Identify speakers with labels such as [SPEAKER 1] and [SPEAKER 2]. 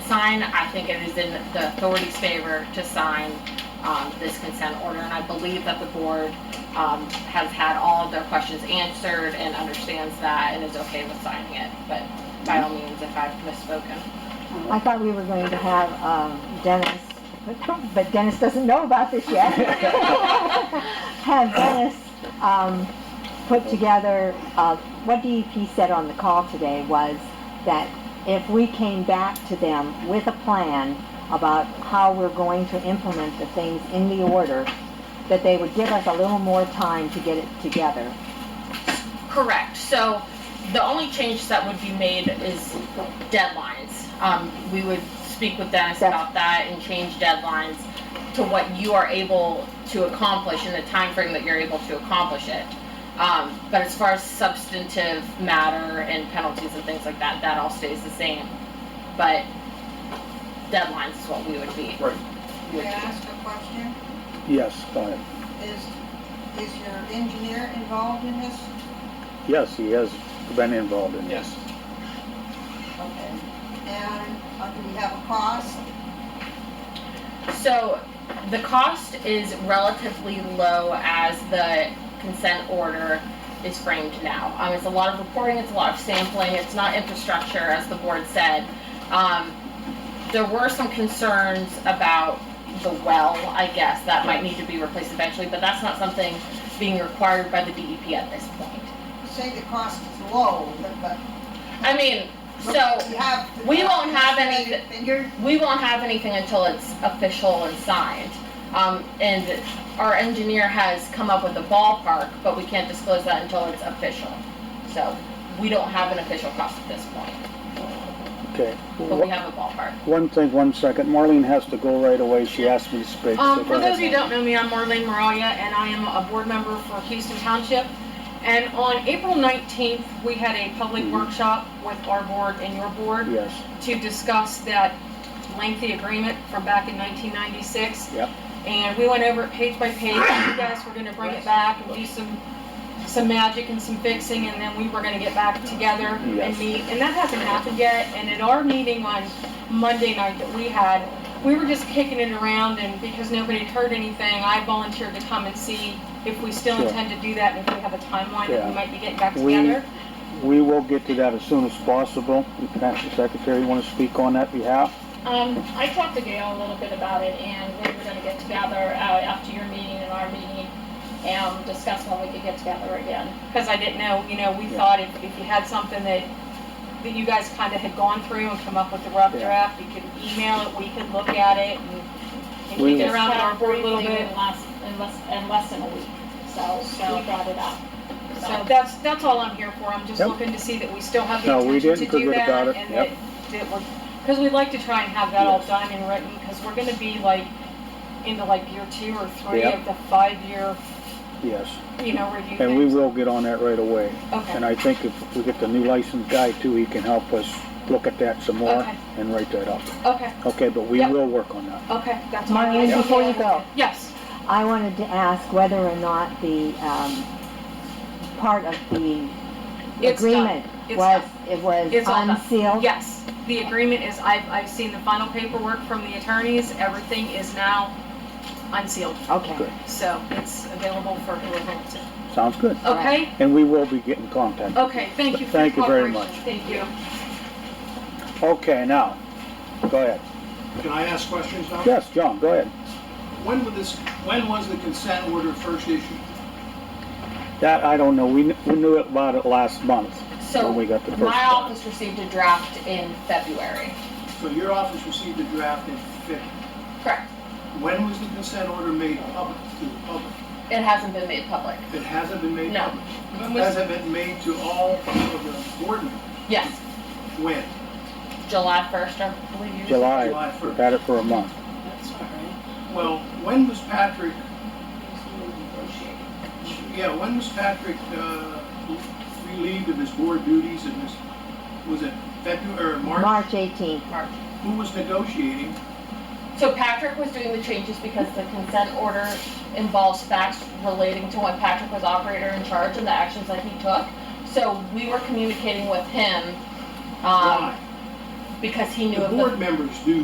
[SPEAKER 1] sign. I think it is in the authority's favor to sign um, this consent order, and I believe that the board um, has had all of their questions answered and understands that and is okay with signing it, but by all means, if I've misspoken.
[SPEAKER 2] I thought we were going to have um, Dennis, but Dennis doesn't know about this yet. Have Dennis um, put together, uh, what DEP said on the call today was that if we came back to them with a plan about how we're going to implement the things in the order, that they would give us a little more time to get it together.
[SPEAKER 1] Correct, so the only change that would be made is deadlines. Um, we would speak with Dennis
[SPEAKER 2] Yes.
[SPEAKER 1] about that and change deadlines to what you are able to accomplish in the time frame that you're able to accomplish it. Um, but as far as substantive matter and penalties and things like that, that all stays the same. But deadlines is what we would be.
[SPEAKER 3] Right.
[SPEAKER 1] would
[SPEAKER 4] May I ask a question?
[SPEAKER 3] Yes, go ahead.
[SPEAKER 4] Is, is your engineer involved in this?
[SPEAKER 3] Yes, he has been involved in this.
[SPEAKER 4] Okay. And uh, do we have a cost?
[SPEAKER 1] So the cost is relatively low as the consent order is framed now. Um, it's a lot of reporting, it's a lot of sampling, it's not infrastructure, as the board said. Um, there were some concerns about the well, I guess, that might need to be replaced eventually, but that's not something being required by the DEP at this point.
[SPEAKER 4] Say the cost is low, but, but.
[SPEAKER 1] I mean, so
[SPEAKER 4] You have to-
[SPEAKER 1] we won't have any-
[SPEAKER 4] Estimated figure?
[SPEAKER 1] we won't have anything until it's official and signed. Um, and our engineer has come up with a ballpark, but we can't disclose that until it's official. So we don't have an official cost at this point,
[SPEAKER 3] Okay.
[SPEAKER 1] but we have a ballpark.
[SPEAKER 3] One thing, one second. Marlene has to go right away. She asked me to speak. so
[SPEAKER 5] Um,
[SPEAKER 3] go
[SPEAKER 5] for those
[SPEAKER 3] ahead,
[SPEAKER 5] who
[SPEAKER 3] Marlene.
[SPEAKER 5] don't know me, I'm Marlene Moralia, and I am a board member for Houston Township. And on April 19th, we had a public
[SPEAKER 3] Mhm.
[SPEAKER 5] workshop with our board and your board
[SPEAKER 3] Yes,
[SPEAKER 5] to discuss that lengthy agreement from back in 1996.
[SPEAKER 3] Yep.
[SPEAKER 5] And we went over it page by page, and you guys were gonna bring it back and do some, some magic and some fixing, and then we were gonna get back together
[SPEAKER 3] Yes.
[SPEAKER 5] and meet. And that hasn't happened yet, and at our meeting on Monday night that we had, we were just kicking it around, and because nobody had heard anything, I volunteered to come and see if we still
[SPEAKER 3] Sure.
[SPEAKER 5] intend to do that, and if we have a timeline that
[SPEAKER 3] Yeah.
[SPEAKER 5] we might be getting back
[SPEAKER 3] We-
[SPEAKER 5] together.
[SPEAKER 3] we will get to that as soon as possible. You can ask the secretary, you want to speak on that behalf?
[SPEAKER 6] Um, I talked to Gail a little bit about it, and we were gonna get together, uh, after your meeting and our meeting, and discuss when we could get together again.
[SPEAKER 5] because I didn't know, you know, we
[SPEAKER 3] Yeah.
[SPEAKER 5] thought if, if you had something that, that you guys kind of had gone through and come up with a rough
[SPEAKER 3] Yeah.
[SPEAKER 5] draft, you could email it, we could look at it and, and
[SPEAKER 3] We-
[SPEAKER 5] kick it around in our board a little
[SPEAKER 6] Briefly
[SPEAKER 5] bit.
[SPEAKER 6] In less, in less, in less than a week, so we brought it up.
[SPEAKER 5] So that's, that's all I'm here for, I'm just
[SPEAKER 3] Yep.
[SPEAKER 5] looking to see that we still have
[SPEAKER 3] No,
[SPEAKER 5] the
[SPEAKER 3] we
[SPEAKER 5] intention
[SPEAKER 3] did.
[SPEAKER 5] to
[SPEAKER 3] Good,
[SPEAKER 5] do
[SPEAKER 3] good about
[SPEAKER 5] that
[SPEAKER 3] it.
[SPEAKER 5] and
[SPEAKER 3] Yep.
[SPEAKER 5] that, that we're, because we'd like to try and have that all done and written, because we're gonna be like, into like year two or three
[SPEAKER 3] Yep.
[SPEAKER 5] of the five-year,
[SPEAKER 3] Yes,
[SPEAKER 5] you know, review
[SPEAKER 3] and we
[SPEAKER 5] things.
[SPEAKER 3] will get on that right away. And
[SPEAKER 5] Okay,
[SPEAKER 3] I think if we get the new licensed guy too, he can help us look at that some more
[SPEAKER 5] Okay.
[SPEAKER 3] and write that up.
[SPEAKER 5] okay,
[SPEAKER 3] Okay, but we
[SPEAKER 5] Yep.
[SPEAKER 3] will work on that.
[SPEAKER 5] okay, that's all. I
[SPEAKER 2] Marlene,
[SPEAKER 5] have.
[SPEAKER 2] before you go,
[SPEAKER 5] Yes.
[SPEAKER 2] I wanted to ask whether or not the, um, part of the
[SPEAKER 5] It's done.
[SPEAKER 2] agreement
[SPEAKER 5] It's
[SPEAKER 2] was, it was
[SPEAKER 5] It's all done.
[SPEAKER 2] unsealed?
[SPEAKER 5] Yes, the agreement is, I've, I've seen the final paperwork from the attorneys, everything is now unsealed,
[SPEAKER 2] Okay,
[SPEAKER 3] Good.
[SPEAKER 5] so it's available for whoever wants it.
[SPEAKER 3] Sounds good.
[SPEAKER 5] Okay,
[SPEAKER 3] And we will be getting contact.
[SPEAKER 5] okay, thank you for your
[SPEAKER 3] Thank you very
[SPEAKER 5] cooperation.
[SPEAKER 3] much.
[SPEAKER 5] Thank you.
[SPEAKER 3] Okay, now, go ahead.
[SPEAKER 7] Can I ask questions now?
[SPEAKER 3] Yes, John, go ahead.
[SPEAKER 7] When was this, when was the consent order first issued?
[SPEAKER 3] That, I don't know, we, kn- we knew about it last month,
[SPEAKER 1] So
[SPEAKER 3] when we got the first
[SPEAKER 1] my
[SPEAKER 3] one.
[SPEAKER 1] office received a draft in February.
[SPEAKER 7] So your office received a draft in February.
[SPEAKER 1] Correct.
[SPEAKER 7] When was the consent order made public to the public?
[SPEAKER 1] It hasn't been made public.
[SPEAKER 7] It hasn't been made
[SPEAKER 1] No.
[SPEAKER 7] public. Has it been made to all of the board members?
[SPEAKER 1] Yes,
[SPEAKER 7] When?
[SPEAKER 1] July first, I believe you.
[SPEAKER 3] July,
[SPEAKER 7] July
[SPEAKER 3] we've
[SPEAKER 7] first.
[SPEAKER 3] had it for a month.
[SPEAKER 7] Well, when was Patrick? Yeah, when was Patrick uh, relieved of his board duties and his, was it February or March?
[SPEAKER 2] March 18th.
[SPEAKER 7] Who was negotiating?
[SPEAKER 1] So Patrick was doing the changes because the consent order involves facts relating to when Patrick was operator in charge and the actions that he took. So we were communicating with him, um,
[SPEAKER 7] Why?
[SPEAKER 1] because he knew
[SPEAKER 7] The
[SPEAKER 1] of the
[SPEAKER 7] board members do